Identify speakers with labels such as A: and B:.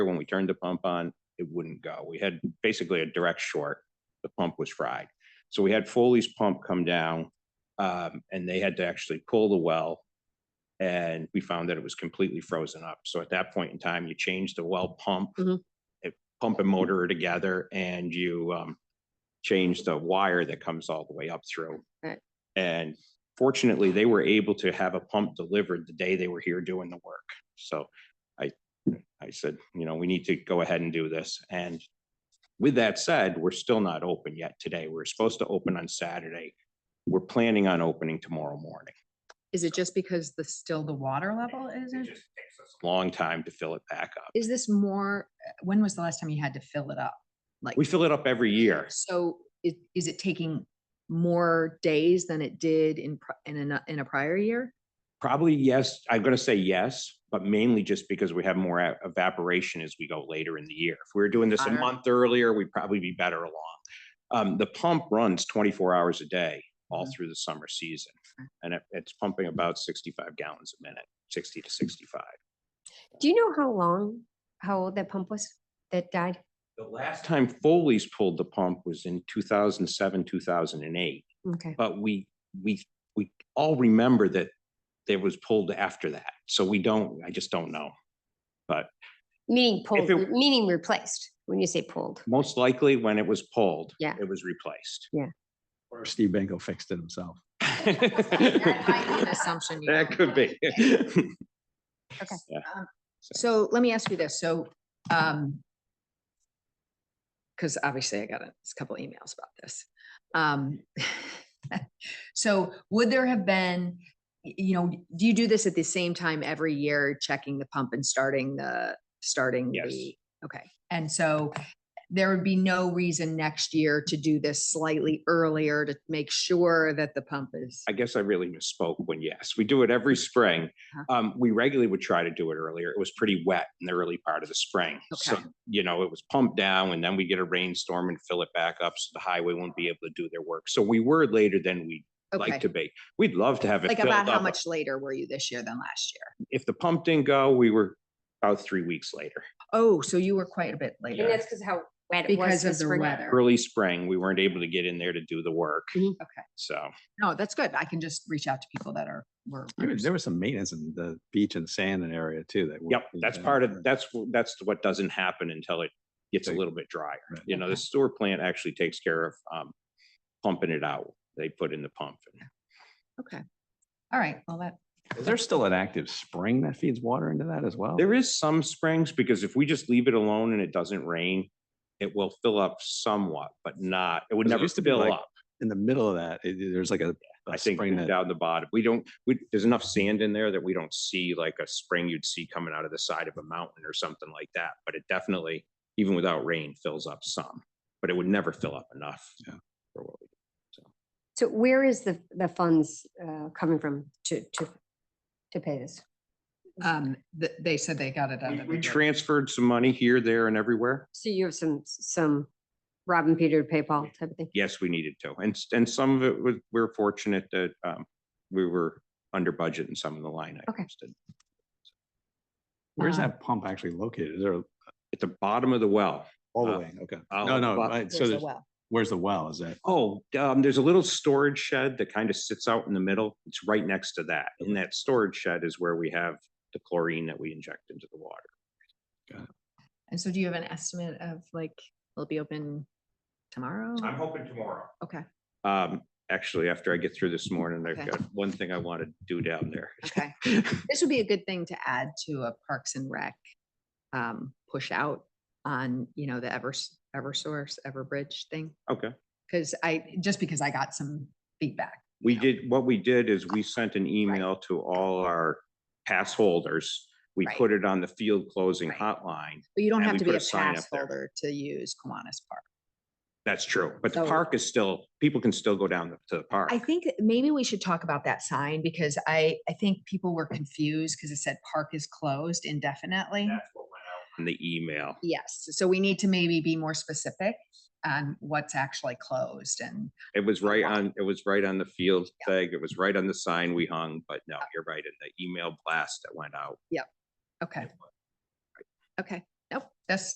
A: when we turned the pump on, it wouldn't go. We had basically a direct short. The pump was fried. So we had Foley's pump come down, um, and they had to actually pull the well. And we found that it was completely frozen up. So at that point in time, you change the well pump.
B: Mhm.
A: It pump and motor are together and you, um, change the wire that comes all the way up through.
B: Right.
A: And fortunately, they were able to have a pump delivered the day they were here doing the work. So I, I said, you know, we need to go ahead and do this. And with that said, we're still not open yet today. We're supposed to open on Saturday. We're planning on opening tomorrow morning.
C: Is it just because the, still the water level is?
A: It
C: in-
A: just takes us a Long time to fill it back up.
C: Is this more, uh, when was the last time you had to fill it up? Like,
A: We fill it up every year.
C: so is, is it taking more days than it did in, pri- in a, in a prior year?
A: Probably yes, I'm gonna say yes, but mainly just because we have more e- evaporation as we go later in the year. If we were doing this a
C: Hotter.
A: month earlier, we'd probably be better along. Um, the pump runs twenty-four hours a day all
C: Mhm.
A: through the summer season.
C: Okay.
A: And it, it's pumping about sixty-five gallons a minute, sixty to sixty-five.
B: Do you know how long, how old that pump was that died?
A: The last time Foley's pulled the pump was in two thousand seven, two thousand and eight.
B: Okay,
A: But we, we, we all remember that it was pulled after that. So we don't, I just don't know.
B: meaning pulled,
A: it-
B: meaning replaced, when you say pulled.
A: Most likely when it was pulled.
B: Yeah.
A: It was replaced.
D: Or if Steve Benko fixed it himself.
C: That might be an Assumption. you
A: That
C: don't
A: could
C: know.
A: be.
C: Um, So let me ask you this, so, um, because obviously I got a s- couple emails about this. Um, so would there have been, y- you know, do you do this at the same time every year, checking the pump and starting the, starting
A: Yes.
C: the? Okay, and so there would be no reason next year to do this slightly earlier to make sure that the pump is,
A: I guess I really misspoke when yes, we do it every spring.
C: Uh-huh.
A: Um, we regularly would try to do it earlier. It was pretty wet in the early part of the spring. So,
C: Okay.
A: you know, it was pumped down and then we get a rainstorm and fill it back up. So the highway won't be able to do their work. So we were later than we like
C: okay?
A: to be. We'd love to have it
C: Like
A: filled
C: about how
A: up.
C: much later were you this year than last year?
A: If the pump didn't go, we were about three weeks later.
C: Oh, so you were quite a bit later.
B: And that's because how wet it was.
C: Because of
B: this
C: the
B: spring.
C: weather.
A: Early spring, we weren't able to get in there to do the work.
B: Mhm.
C: Mm-hmm. Okay.
A: So.
C: No, that's good. I can just reach out to people that are, were.
D: There was- There was some maintenance in the beach and sand and area too that.
A: Yep, that's part of, that's, wh- that's what doesn't happen until it gets a
D: Right.
A: little bit drier.
D: Right.
A: You know, the sewer plant actually takes care of um pumping it out. They put in the pump. and-
C: Okay. All right, well, that,
D: Is there still an active spring that feeds water into that as well?
A: There is some springs because if we just leave it alone and it doesn't rain, it will fill up somewhat, but not, it would
D: 'Cause it
A: never
D: used to be
A: fill
D: like
A: up.
D: In the middle of that, it- it- there's like a. a
A: I think
D: spring that-
A: down the bottom, we don't, we, there's enough sand in there that we don't see like a spring you'd see coming out of the side of a mountain or something like that. But it definitely, even without rain, fills up some, but it would never fill up enough.
D: Yeah.
A: for what we
B: So where is the, the funds uh, coming from to, to, to pay this?
C: um, th- they said they got it out
A: We
C: of.
A: we
C: the-
A: transferred some money here, there, and everywhere.
B: So you have some, some Robin Peter to pay Paul type of thing?
A: Yes, we needed to. And, s- and some of it was, we're fortunate that um, we were under budget in some of the line
B: Okay.
A: items. that-
D: Where's
C: Uh,
D: that pump actually located? Is there
A: At the bottom of the well.
D: all
A: Uh,
D: the way? Okay.
A: I'll-
D: No, no.
A: well,
D: I- So
C: There's a
D: there's-
C: well.
D: where's the well? Is that?
A: Oh, um, there's a little storage shed that kind of sits out in the middle. It's right next to that. In that storage shed is where we have the chlorine that we inject into the water.
C: And so do you have an estimate of like, will it be open tomorrow?
A: Mm. hoping tomorrow.
C: Okay,
A: Um, actually, after I get through this morning, I've
C: Okay.
A: got one thing I want to do down there.
C: okay. This would be a good thing to add to a Parks and Rec um, push out on, you know, the Evers, Eversource, Everbridge thing.
A: Okay.
C: Because I, just because I got some feedback.
A: We did, what we did is we sent an email to all our pass holders. We
C: Right.
A: put it on the field closing
C: Right.
A: hotline.
C: But you don't
A: And
C: have
A: we
C: to
A: put
C: be a
A: a sign
C: pass
A: up there.
C: holder to use Kiwanis Park.
A: That's true, but the
C: So-
A: park is still, people can still go down to the park.
C: I think that maybe we should talk about that sign because I, I think people were confused because it said park is closed indefinitely.
A: That's what went out On the email.
C: Yes, so we need to maybe be more specific on what's actually closed and,
A: It was right on, it was right on the field
C: Yeah.
A: tag. It was right on the sign we hung, but no, you're right. In the email blast that went out.
C: okay. Okay, nope, That's